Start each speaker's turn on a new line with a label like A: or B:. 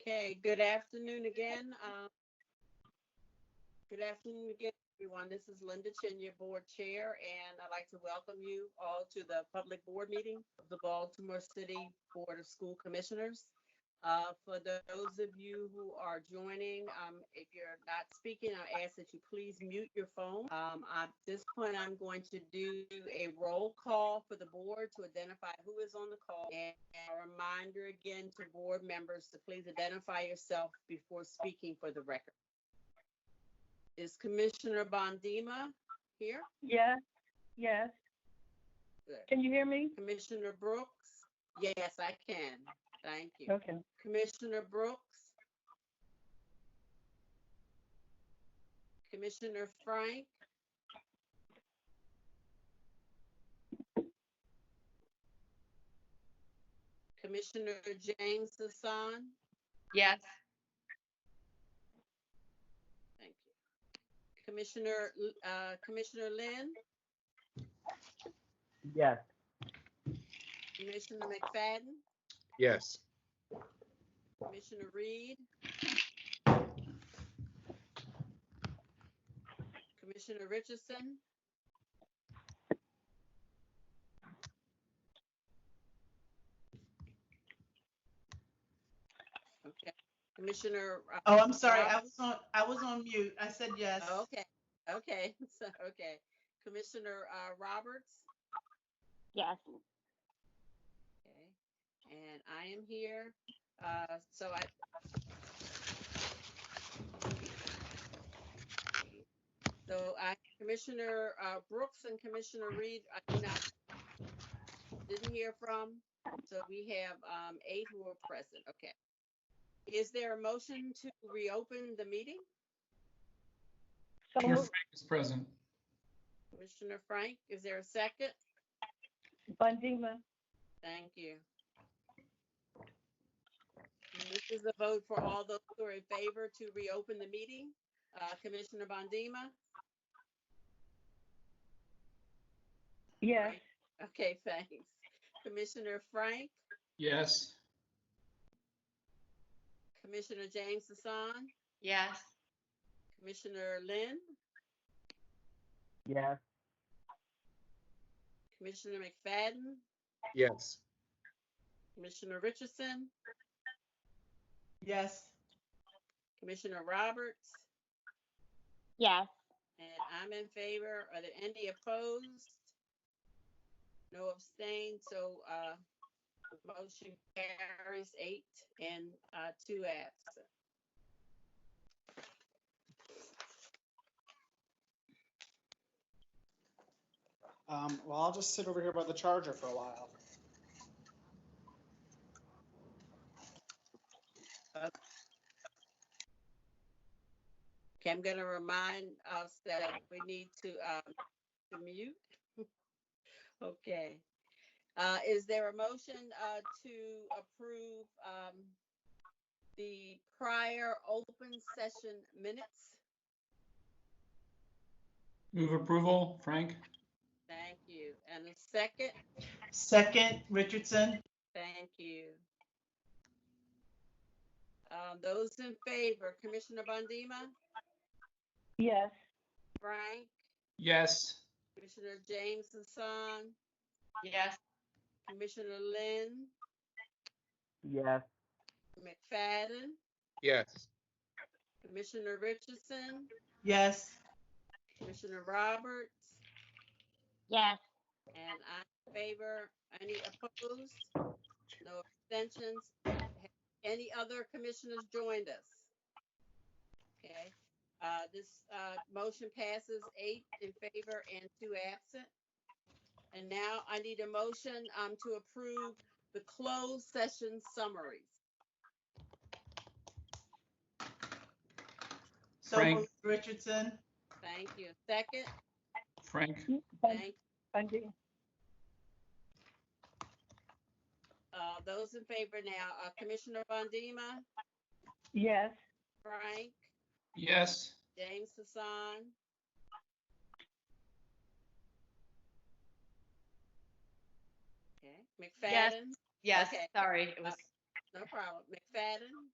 A: Okay, good afternoon again. um, Good afternoon again, everyone. This is Linda Chin, your board chair, and I'd like to welcome you all to the public board meeting of the Baltimore City Board of School Commissioners. Uh, For those of you who are joining, um, if you're not speaking, I ask that you please mute your phone. Um, At this point, I'm going to do a roll call for the board to identify who is on the call and and a reminder again to board members to please identify yourself before speaking for the record. Is Commissioner Bondima here?
B: Yes, yes.
A: Good.
B: Can you hear me?
A: Commissioner Brooks? Yes, I can. Thank you.
B: Okay.
A: Commissioner Brooks? Commissioner Frank? Commissioner James Hassan?
C: Yes.
A: Thank you. Commissioner, uh, Commissioner Lynn,
B: Yes.
A: Commissioner McFadden,
D: Yes.
A: Commissioner Reed. Commissioner Richardson. Okay, Commissioner. uh,
E: Oh, I'm sorry. I
A: Roberts?
E: was on, I was on mute. I said yes.
C: Oh,
A: Okay, okay, so, okay. Commissioner uh, Roberts?
B: Yes.
A: Okay, and I am here, uh, so I. So I, Commissioner, uh, Brooks and Commissioner Reed, I did not, didn't hear from, so we have, um, eight who are present, okay. Is there a motion to reopen the meeting?
B: So
F: Mayor
B: moved.
F: Frank is present.
A: Commissioner Frank, is there a second?
B: Bondima,
A: Thank you. And This is a vote for all those who are in favor to reopen the meeting. Uh, Commissioner Bondima?
B: yes.
A: Okay, thanks. Commissioner Frank,
F: Yes.
A: Commissioner James Hassan,
C: Yes.
A: Commissioner Lynn,
B: Yes.
A: Commissioner McFadden,
D: Yes.
A: Commissioner Richardson,
E: Yes.
A: Commissioner Roberts,
B: Yes.
A: and I'm in favor. Are there any opposed? No abstain, so, uh, the motion carries eight and, uh, two absent.
G: Um, well, I'll just sit over here by the charger for a while.
A: Okay, I'm gonna remind us that we need to, um, to mute. Okay. Uh, is there a motion, uh, to approve, um, the prior open session minutes?
F: Move approval, Frank?
A: Thank you. And a second?
E: Second, Richardson.
A: Thank you. Um, those in favor, Commissioner Bondima,
B: Yes.
A: Frank,
F: Yes.
A: Commissioner James Hassan,
C: Yes.
A: Commissioner Lynn,
B: Yes.
A: McFadden,
D: Yes.
A: Commissioner Richardson,
E: Yes.
A: Commissioner Roberts,
B: Yes.
A: and I favor. Any opposed? No abstentions? Any other commissioners joined us? Okay, uh, this, uh, motion passes eight in favor and two absent. And now I need a motion, um, to approve the closed session summaries.
E: So
F: Frank.
E: moved, Richardson.
A: Thank you. Second,
F: Frank?
B: Bond-
A: thank,
B: Bondima,
A: uh, those in favor now, uh, Commissioner Bondima,
B: yes.
A: Frank,
F: Yes.
A: James Hassan. Okay, McFadden,
C: Yes,
A: Okay.
C: sorry, it was,
A: no problem. McFadden,